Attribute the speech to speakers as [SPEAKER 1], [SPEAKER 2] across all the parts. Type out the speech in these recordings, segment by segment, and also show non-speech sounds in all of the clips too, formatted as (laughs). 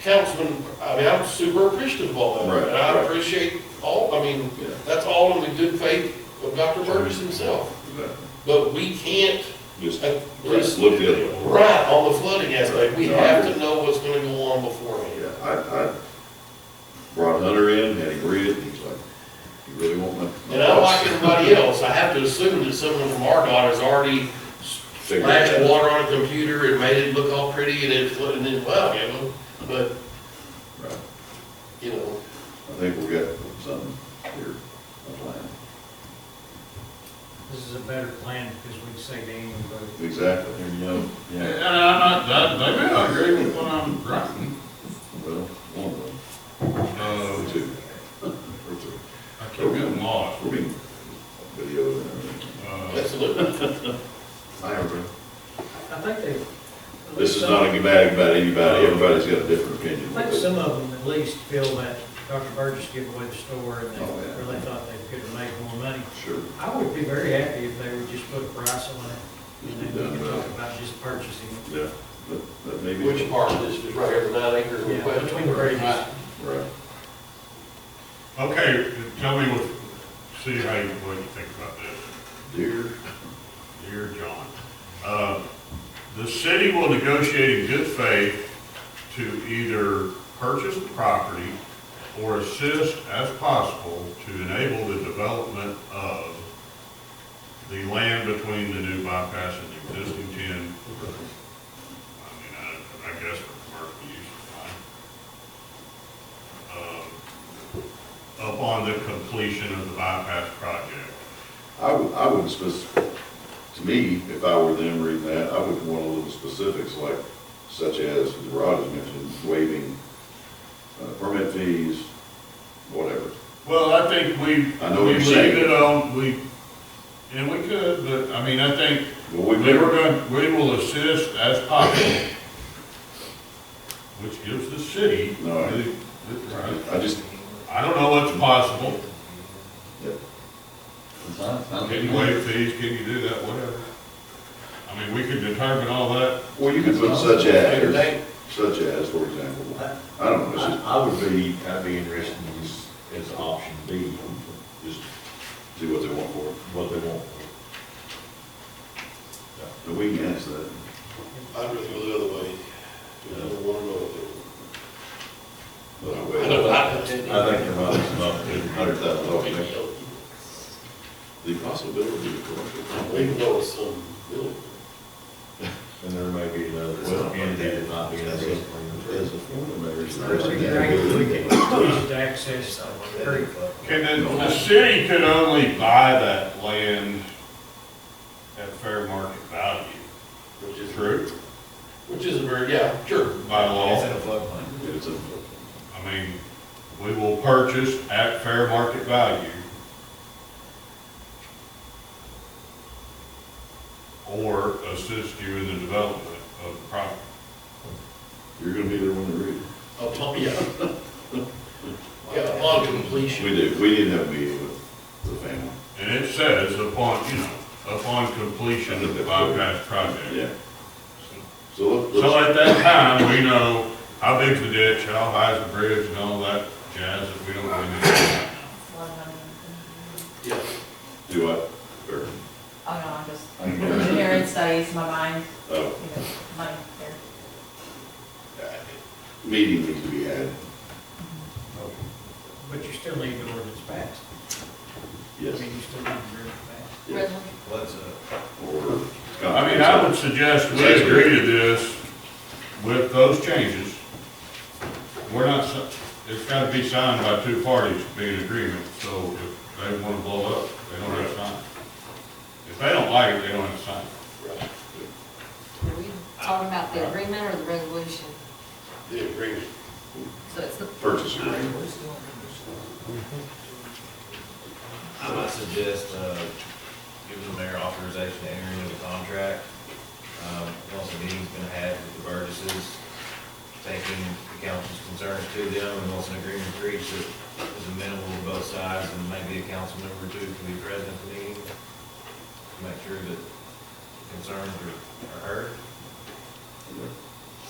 [SPEAKER 1] councilman, I mean, I'm super appreciative of all
[SPEAKER 2] Right,
[SPEAKER 1] that. And I
[SPEAKER 2] right.
[SPEAKER 1] appreciate all, I mean,
[SPEAKER 2] Yeah.
[SPEAKER 1] that's all in the good faith of Dr. Burgess himself. But we can't,
[SPEAKER 2] Just
[SPEAKER 1] at least,
[SPEAKER 2] let's look the other way.
[SPEAKER 1] right on the flooding aspect, we
[SPEAKER 2] No, I
[SPEAKER 1] have
[SPEAKER 2] agree.
[SPEAKER 1] to know what's gonna go on beforehand.
[SPEAKER 2] Yeah, I, I brought Hunter in, had him read it, and he's like, you really want my. my
[SPEAKER 1] And I like
[SPEAKER 2] thoughts?"
[SPEAKER 1] everybody else, I have to assume that someone from RDOT has already
[SPEAKER 2] (laughs) Figured it
[SPEAKER 1] splashed
[SPEAKER 2] out.
[SPEAKER 1] water on a computer and made it look all pretty and it flooded and then, wow, you know, but,
[SPEAKER 2] Right.
[SPEAKER 1] you know,
[SPEAKER 2] I think we got something here, a plan.
[SPEAKER 3] This is a better plan because we can say to anybody.
[SPEAKER 2] Exactly, here you go. Yeah,
[SPEAKER 4] And I'm not, I, maybe I agree with what I'm writing.
[SPEAKER 2] well, one of them,
[SPEAKER 4] Uh,
[SPEAKER 2] or two, or three.
[SPEAKER 4] I keep getting lost.
[SPEAKER 2] We're being videoed and everything.
[SPEAKER 4] Uh,
[SPEAKER 1] absolutely.
[SPEAKER 2] I agree.
[SPEAKER 3] I think they.
[SPEAKER 2] This is not a bad about anybody, everybody's got a different opinion.
[SPEAKER 3] I think some of them at least feel that Dr. Burgess gave away the store and
[SPEAKER 2] Oh, yeah.
[SPEAKER 3] they really thought they could have made more money.
[SPEAKER 2] Sure.
[SPEAKER 3] I would be very happy if they would just put a price on it. And then we could
[SPEAKER 2] Yeah.
[SPEAKER 3] talk about just purchasing it.
[SPEAKER 2] Yeah, but, but maybe.
[SPEAKER 1] Which part of this is right here, the nine acres
[SPEAKER 3] Yeah,
[SPEAKER 1] request?
[SPEAKER 3] between the bridges.
[SPEAKER 2] Right.
[SPEAKER 4] Okay, tell me what, see how you, what you think about this.
[SPEAKER 2] Deer,
[SPEAKER 4] Dear John, uh, the city will negotiate in good faith to either purchase the property or assist as possible to enable the development of the land between the new bypass and the existing ten. I mean, I, I guess for commercial use, fine. Um, Upon the completion of the bypass project.
[SPEAKER 2] I would, I would spec, to me, if I were them reading that, I would want a little specifics like such as Rod has mentioned, waiving uh, permit fees, whatever.
[SPEAKER 4] Well, I think we,
[SPEAKER 2] I know what
[SPEAKER 4] we
[SPEAKER 2] you're
[SPEAKER 4] leave
[SPEAKER 2] saying.
[SPEAKER 4] it on, we, and we could, but, I mean, I think
[SPEAKER 2] Well,
[SPEAKER 4] we
[SPEAKER 2] we've
[SPEAKER 4] were
[SPEAKER 2] never,
[SPEAKER 4] going, we will assist as possible, which gives the city.
[SPEAKER 2] No, I-
[SPEAKER 4] the- the- right.
[SPEAKER 2] I just,
[SPEAKER 4] I don't know what's possible. Can you
[SPEAKER 2] Well,
[SPEAKER 4] waive fees, can you do that, whatever? I mean, we could determine all that.
[SPEAKER 2] you could put such as,
[SPEAKER 1] Everything,
[SPEAKER 2] such as, for example,
[SPEAKER 5] I,
[SPEAKER 2] I don't know, it's just
[SPEAKER 5] I would be, I'd be interested in this as option B, just
[SPEAKER 2] see what they want for it.
[SPEAKER 5] what they want.
[SPEAKER 2] But we can ask that.
[SPEAKER 1] I'd rather go the other way. I don't wanna go the other way.
[SPEAKER 2] but I
[SPEAKER 1] I
[SPEAKER 2] will.
[SPEAKER 1] know, I-
[SPEAKER 5] I think there might be some opportunity.
[SPEAKER 2] Hundred thousand dollars. The possibility of commercial.
[SPEAKER 1] Even though it's some, really,
[SPEAKER 5] And there may be another,
[SPEAKER 2] Well,
[SPEAKER 5] community that might be interested.
[SPEAKER 2] As a former mayor, it's
[SPEAKER 3] We
[SPEAKER 2] interesting.
[SPEAKER 3] can- we can use it to access the creek.
[SPEAKER 4] Can the, the city could only buy that land at fair market value,
[SPEAKER 1] which is,
[SPEAKER 4] true,
[SPEAKER 1] which is a very, yeah, sure.
[SPEAKER 4] by law.
[SPEAKER 5] a floodplain.
[SPEAKER 2] It's a,
[SPEAKER 4] I mean, we will purchase at fair market value. Or assist you in the development of the property.
[SPEAKER 2] you're gonna be there when they read it.
[SPEAKER 1] Upon, yeah. (laughs) Yeah, upon completion.
[SPEAKER 2] We did, we did have a meeting with the family.
[SPEAKER 4] And it says upon, you know, upon completion of the bypass project.
[SPEAKER 2] Yeah, so uh, let-
[SPEAKER 4] So
[SPEAKER 2] let's,
[SPEAKER 4] at that time, we know how big's the ditch, how high's the bridge and all that jazz that we don't really need. to
[SPEAKER 1] Yeah.
[SPEAKER 2] do I, or,
[SPEAKER 6] Oh, no, I'm just,
[SPEAKER 2] I mean,
[SPEAKER 6] engineering studies, my mind,
[SPEAKER 2] uh,
[SPEAKER 6] you know, money there.
[SPEAKER 2] meeting needs to be had,
[SPEAKER 3] But you still need the ordinance passed. I
[SPEAKER 2] yes.
[SPEAKER 3] mean, you still need the ordinance passed.
[SPEAKER 2] yes.
[SPEAKER 5] What's uh, a?
[SPEAKER 2] Or.
[SPEAKER 4] know. I mean, I would suggest we agree to this with those changes. We're not, si- it's gotta be signed by two parties to be in agreement, so if they wanna blow up, they don't have to sign. it. If they don't like it, they don't have to sign. it.
[SPEAKER 1] Right.
[SPEAKER 7] Are we talking about the agreement or the resolution?
[SPEAKER 1] The agreement.
[SPEAKER 7] So it's the.
[SPEAKER 2] Purchase agreement.
[SPEAKER 5] I might suggest, uh, giving the mayor authorization to enter into the contract. Um, once the meeting's been had with the Burgesses, taking the council's concerns to them, and once an agreement is reached, that is amenable to both sides, and maybe a council member or two can be present at the meeting, to make sure that concerns are, are heard.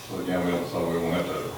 [SPEAKER 2] So again, we don't, so we won't have to